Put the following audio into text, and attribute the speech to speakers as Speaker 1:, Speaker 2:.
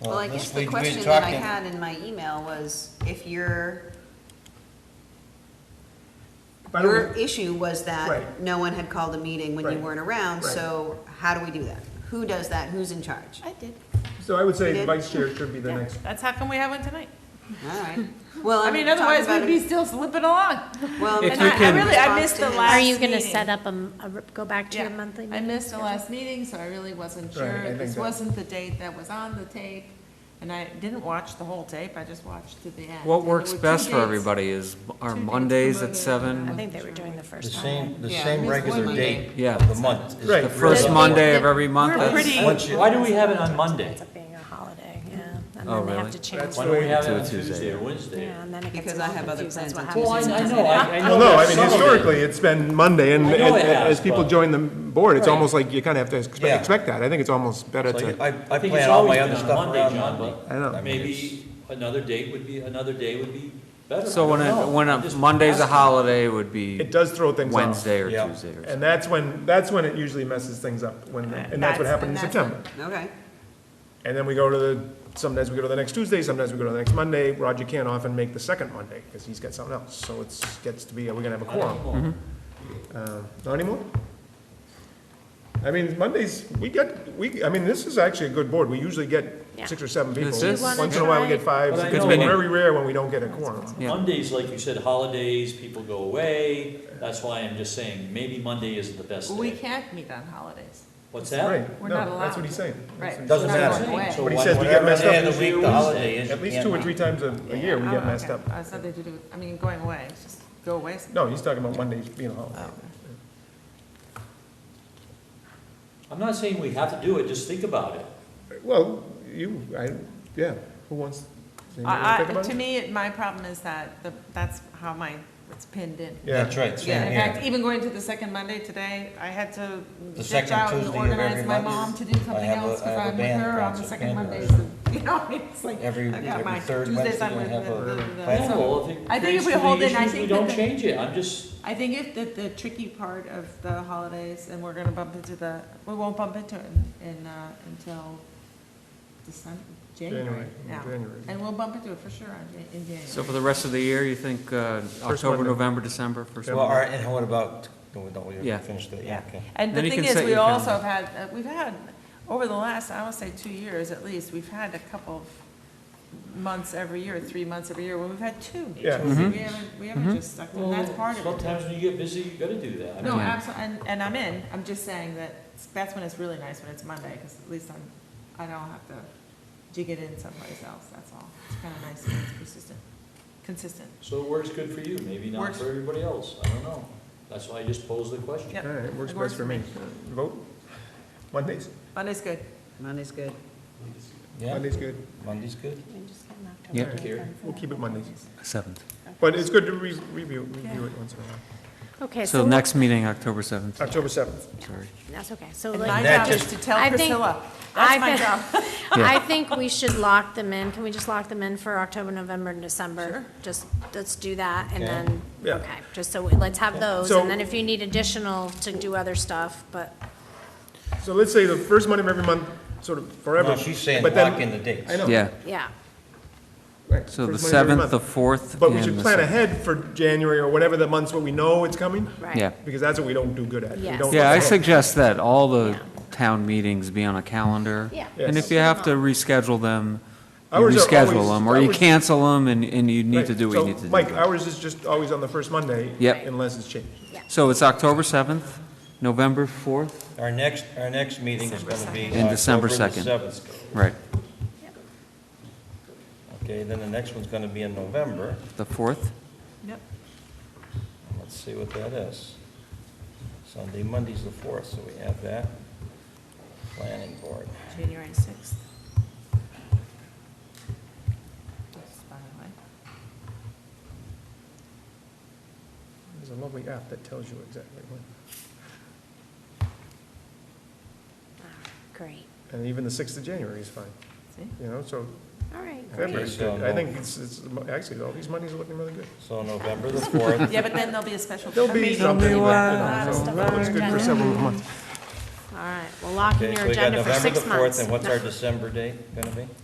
Speaker 1: Well, I
Speaker 2: this
Speaker 1: guess the
Speaker 2: week we've been
Speaker 1: question that I
Speaker 2: talking-
Speaker 1: had in my email was, if your,
Speaker 3: By the way-
Speaker 1: your issue was that
Speaker 3: Right.
Speaker 1: no one had called a meeting when you
Speaker 3: Right.
Speaker 1: weren't around,
Speaker 3: Right.
Speaker 1: so how do we do that? Who does that? Who's in charge?
Speaker 4: I did.
Speaker 3: So I would say
Speaker 1: Yeah.
Speaker 3: the vice chair should be the next.
Speaker 4: That's how come we haven't tonight.
Speaker 1: All right. Well,
Speaker 4: I
Speaker 1: I'm
Speaker 4: mean,
Speaker 1: talking
Speaker 4: otherwise
Speaker 1: Um, about
Speaker 4: we'd be
Speaker 1: it.
Speaker 4: still slipping along.
Speaker 1: Well, I'm
Speaker 5: If
Speaker 1: talking
Speaker 5: you
Speaker 1: about
Speaker 5: can-
Speaker 1: in
Speaker 5: I
Speaker 4: really- I
Speaker 1: response
Speaker 4: missed
Speaker 1: to
Speaker 4: the
Speaker 1: his-
Speaker 4: last-
Speaker 6: Are you gonna
Speaker 4: meeting.
Speaker 6: set up a, m- a r- go back to your
Speaker 4: Yeah.
Speaker 6: monthly
Speaker 4: I
Speaker 6: meeting?
Speaker 4: missed the last meeting, so I really wasn't
Speaker 3: Right, I
Speaker 4: sure.
Speaker 3: think
Speaker 4: This
Speaker 3: that-
Speaker 4: wasn't the date that was on the tape, and I didn't watch the whole tape, I just watched to the end.
Speaker 5: What
Speaker 4: And there
Speaker 5: works
Speaker 4: were two
Speaker 5: best for
Speaker 4: dates.
Speaker 5: everybody is,
Speaker 4: Two
Speaker 5: are
Speaker 4: dates
Speaker 5: Mondays
Speaker 4: promoted.
Speaker 5: at seven?
Speaker 6: I think they were doing the
Speaker 2: The
Speaker 6: first
Speaker 2: same,
Speaker 6: time.
Speaker 2: the
Speaker 1: Yeah,
Speaker 2: same
Speaker 1: it's
Speaker 2: regular
Speaker 1: one
Speaker 2: date
Speaker 5: Yeah.
Speaker 2: of the month. is
Speaker 3: Right.
Speaker 2: the
Speaker 3: The
Speaker 5: First
Speaker 2: regular-
Speaker 5: Monday of every month?
Speaker 4: We're
Speaker 5: that's-
Speaker 4: pretty-
Speaker 2: Once you-
Speaker 7: Why do we have it on Monday?
Speaker 6: It's up being a holiday, yeah. And
Speaker 5: Oh,
Speaker 6: then they have
Speaker 5: really?
Speaker 6: to change.
Speaker 7: Why
Speaker 6: it.
Speaker 7: don't we have it
Speaker 5: To a
Speaker 7: on
Speaker 5: Tuesday.
Speaker 7: Tuesday or Wednesday?
Speaker 6: Yeah, and then it gets.
Speaker 1: Because I
Speaker 6: all
Speaker 1: have other
Speaker 6: confused. That's
Speaker 1: plans
Speaker 6: what
Speaker 1: on
Speaker 7: Well, I,
Speaker 6: happens
Speaker 7: I
Speaker 6: in
Speaker 7: know, I, I know.
Speaker 3: Well, no, I
Speaker 7: there's
Speaker 3: mean,
Speaker 7: some of it.
Speaker 3: historically, it's been Monday, and
Speaker 7: I know it
Speaker 3: and
Speaker 7: has,
Speaker 3: as people
Speaker 7: but-
Speaker 3: join the board, it's
Speaker 7: Right.
Speaker 3: almost like you kind of have to expe-
Speaker 2: Yeah.
Speaker 3: expect that. I think it's almost better
Speaker 2: Like,
Speaker 3: to,
Speaker 2: I, I
Speaker 7: I think
Speaker 2: plan
Speaker 7: it's
Speaker 2: all
Speaker 7: always
Speaker 2: my
Speaker 7: been
Speaker 2: other
Speaker 7: on
Speaker 2: stuff
Speaker 7: Monday,
Speaker 2: around
Speaker 7: John,
Speaker 2: Monday.
Speaker 7: but
Speaker 3: I don't know.
Speaker 2: mean, it's-
Speaker 7: maybe another date would be, another day would be better.
Speaker 5: So when
Speaker 7: I don't
Speaker 5: a,
Speaker 7: know.
Speaker 5: when
Speaker 7: I'm
Speaker 5: a
Speaker 7: just
Speaker 5: Monday's a
Speaker 7: asking.
Speaker 5: holiday would be
Speaker 3: it does throw things off.
Speaker 5: Wednesday or
Speaker 2: Yeah.
Speaker 5: Tuesday or something.
Speaker 3: And that's when, that's when it usually messes things up, when, and that's what happened in September.
Speaker 1: Okay.
Speaker 3: And then we go to the, sometimes we go to the next Tuesday, sometimes we go to the next Monday. Roger can't often make the second Monday, because he's got something else, so it's, gets to be, are we gonna have a
Speaker 7: I don't
Speaker 3: quorum?
Speaker 7: know.
Speaker 5: Mm-hmm.
Speaker 3: Uh, Not anymore? I mean, Mondays, we get, we, I mean, this is actually a good board. We usually get
Speaker 6: Yeah.
Speaker 3: six or seven people.
Speaker 5: This is- You wanna
Speaker 3: Once in a while, we
Speaker 6: try-
Speaker 3: get five.
Speaker 7: But I
Speaker 3: It's
Speaker 7: know-
Speaker 3: very rare when we don't get a quorum.
Speaker 5: Yeah.
Speaker 7: Mondays, like you said, holidays, people go away, that's why I'm just saying, maybe Monday isn't the best
Speaker 4: We
Speaker 7: day.
Speaker 4: can't meet on holidays.
Speaker 7: What's that?
Speaker 3: Right,
Speaker 4: We're not
Speaker 3: no, that's
Speaker 4: allowed.
Speaker 3: what he's saying.
Speaker 4: Right.
Speaker 3: That's
Speaker 2: Doesn't
Speaker 4: We're not
Speaker 2: matter.
Speaker 4: going away.
Speaker 2: So
Speaker 3: But he
Speaker 2: wha-
Speaker 3: says we get
Speaker 2: whatever
Speaker 3: messed
Speaker 2: day
Speaker 3: up
Speaker 2: of the
Speaker 3: Tuesday
Speaker 2: week
Speaker 3: or
Speaker 2: the
Speaker 3: Wednesday.
Speaker 2: holiday is,
Speaker 3: what- At
Speaker 2: you
Speaker 3: least two or
Speaker 2: can't
Speaker 3: three
Speaker 2: meet.
Speaker 3: times a, a year, we
Speaker 4: Oh,
Speaker 3: get
Speaker 4: okay.
Speaker 3: messed up.
Speaker 4: Oh, It's nothing to do with, I mean, going away, it's just go away.
Speaker 3: No, he's talking about Mondays being a holiday.
Speaker 7: Oh. I'm not saying we have to do it, just think about it.
Speaker 3: Well, you, I, yeah, who wants, does anybody wanna
Speaker 4: I,
Speaker 3: think
Speaker 4: I,
Speaker 3: about
Speaker 4: to
Speaker 3: it?
Speaker 4: me, my problem is that, the- that's how my, it's pinned in.
Speaker 3: Yeah.
Speaker 2: That's right,
Speaker 4: Yeah,
Speaker 2: same
Speaker 4: in
Speaker 2: here.
Speaker 4: fact, even going to the second Monday today, I had to
Speaker 2: The
Speaker 4: ditch
Speaker 2: second
Speaker 4: out and
Speaker 2: Tuesday of every
Speaker 4: organize my
Speaker 2: month.
Speaker 4: mom to do
Speaker 2: I
Speaker 4: something
Speaker 2: have a- I
Speaker 4: else, because
Speaker 2: have a
Speaker 4: I'm with
Speaker 2: band
Speaker 4: her on the
Speaker 2: concert,
Speaker 4: second
Speaker 2: band
Speaker 4: Mondays.
Speaker 2: concert.
Speaker 4: and, You know, it's like,
Speaker 2: Every-
Speaker 4: I got
Speaker 2: every
Speaker 4: my
Speaker 2: third
Speaker 4: Tuesdays
Speaker 2: Wednesday
Speaker 4: I'm
Speaker 2: I
Speaker 4: with
Speaker 2: have
Speaker 4: the-
Speaker 2: a-
Speaker 4: the- the-
Speaker 2: Plan.
Speaker 4: so-
Speaker 7: Well, if
Speaker 4: I
Speaker 7: it
Speaker 4: think
Speaker 7: creates
Speaker 4: if we
Speaker 7: too
Speaker 4: hold
Speaker 7: many
Speaker 4: it, I
Speaker 7: issues, we
Speaker 4: think
Speaker 7: don't
Speaker 4: that the-
Speaker 7: change it, I'm just,
Speaker 4: I think if the, the tricky part of the holidays, and we're gonna bump into the, we won't bump into it in- in, uh, until December, January
Speaker 3: January,
Speaker 4: now.
Speaker 3: January.
Speaker 4: And we'll bump into it for sure on, Jan- in January.
Speaker 5: So for the rest of the year, you think uh, October,
Speaker 3: Monday.
Speaker 5: November, December, first?
Speaker 2: Well, all right, and what about, no, don't we
Speaker 5: Yeah.
Speaker 2: finish the,
Speaker 4: Yeah,
Speaker 2: yeah, okay.
Speaker 4: and the
Speaker 5: Then you
Speaker 4: thing
Speaker 5: can
Speaker 4: is,
Speaker 5: set
Speaker 4: we
Speaker 5: your
Speaker 4: also have
Speaker 5: calendar.
Speaker 4: had, uh, we've had, over the last, I would say, two years at least, we've had a couple of months every year, three months every year, where we've had two.
Speaker 3: Yeah.
Speaker 4: So
Speaker 5: Mm-hmm.
Speaker 4: We haven't, we haven't just stuck, and that's part of it.
Speaker 7: sometimes when you get busy, you gotta do that. I mean,
Speaker 4: No,
Speaker 5: Yeah.
Speaker 4: absolutely, and, and I'm in, I'm just saying that, that's when it's really nice, when it's Monday, because at least I'm, I don't have to jig it in someplace else, that's all. It's kind of nice, when it's persistent, consistent.
Speaker 7: So it works good for you, maybe not
Speaker 4: Works.
Speaker 7: for everybody else, I don't know. That's why I just posed the question.
Speaker 4: Yep.
Speaker 3: All right, works best for me. Vote? Mondays?
Speaker 4: Monday's good.
Speaker 1: Monday's good.
Speaker 2: Yeah,
Speaker 3: Monday's good.
Speaker 2: Monday's good.
Speaker 6: We just get an October
Speaker 5: Yeah.
Speaker 6: date
Speaker 7: Here.
Speaker 6: then for
Speaker 3: We'll
Speaker 6: that.
Speaker 3: keep it Mondays.
Speaker 5: Seventh.
Speaker 3: But it's good to re- review, review it once in a while.
Speaker 6: Okay,
Speaker 5: So
Speaker 6: so,
Speaker 5: the next meeting, October seventh,
Speaker 3: October seventh.
Speaker 5: sorry.
Speaker 6: that's okay, so
Speaker 4: And
Speaker 6: like.
Speaker 4: my
Speaker 2: That
Speaker 4: job is
Speaker 2: just-
Speaker 4: to tell
Speaker 6: I think-
Speaker 4: Priscilla,
Speaker 6: I
Speaker 4: that's my
Speaker 6: think-
Speaker 4: job.
Speaker 5: Yeah.
Speaker 6: I think we should lock them in. Can we just lock them in for October, November, and December? Just, let's do that, and
Speaker 2: Okay.
Speaker 6: then,
Speaker 3: Yeah.
Speaker 6: okay, just so, we- let's have those,
Speaker 3: So-
Speaker 6: and then if you need additional to do other stuff, but,
Speaker 3: So let's say the first Monday of every month, sort of forever.
Speaker 2: No, she's saying
Speaker 3: but then-
Speaker 2: lock in the dates.
Speaker 3: I know.
Speaker 5: Yeah,
Speaker 6: yeah.
Speaker 3: Right,
Speaker 5: so the
Speaker 3: first Monday of every
Speaker 5: seventh, the
Speaker 3: month.
Speaker 5: fourth.
Speaker 3: But we
Speaker 5: and
Speaker 3: should
Speaker 5: the
Speaker 3: plan
Speaker 5: seventh.
Speaker 3: ahead for January or whatever the months where we know it's coming,
Speaker 6: Right.
Speaker 5: Yeah.
Speaker 3: because that's what we don't do good at. We
Speaker 6: Yes.
Speaker 3: don't-
Speaker 5: Yeah, I suggest that all the
Speaker 6: Yeah.
Speaker 5: town meetings be on a calendar.
Speaker 6: Yeah.
Speaker 5: And if you have to reschedule them, you
Speaker 3: Ours are
Speaker 5: reschedule
Speaker 3: always-
Speaker 5: them, or you
Speaker 3: ours-
Speaker 5: cancel them, and, and you need to
Speaker 3: Right,
Speaker 5: do what you
Speaker 3: so,
Speaker 5: need to do.
Speaker 3: Mike, ours is just always on the first Monday.
Speaker 5: Yep.
Speaker 3: Unless it's changed.
Speaker 5: So it's October seventh, November fourth,
Speaker 2: Our next, our next meeting is gonna be
Speaker 5: And December
Speaker 2: October the
Speaker 5: 2nd.
Speaker 2: seventh.
Speaker 5: right,
Speaker 2: Okay, then the next one's gonna be in November.
Speaker 5: the fourth,
Speaker 4: Yep.
Speaker 2: Let's see what that is. Sunday, Monday's the fourth, so we have that. Planning board.
Speaker 4: January 6th. Just by the way.
Speaker 3: There's a lovely app that tells you exactly when.
Speaker 6: Great,
Speaker 3: And even the sixth of January is fine,
Speaker 4: See?
Speaker 3: you know, so
Speaker 6: all right,
Speaker 3: February is
Speaker 2: so
Speaker 3: good. I
Speaker 2: no-
Speaker 3: think it's, it's, actually, all these Mondays are looking really good.
Speaker 2: So November the fourth.
Speaker 4: Yeah, but then there'll be a special.
Speaker 3: There'll be
Speaker 4: meeting.
Speaker 3: something, you
Speaker 6: lot
Speaker 3: know,
Speaker 6: of
Speaker 3: so
Speaker 6: stuff
Speaker 3: that looks
Speaker 6: on
Speaker 3: good
Speaker 6: our
Speaker 3: for several months.
Speaker 6: all right, we'll lock in
Speaker 2: Okay, so
Speaker 6: your
Speaker 2: we got
Speaker 6: agenda for
Speaker 2: November the
Speaker 6: six months.
Speaker 2: fourth, and what's our December date gonna be?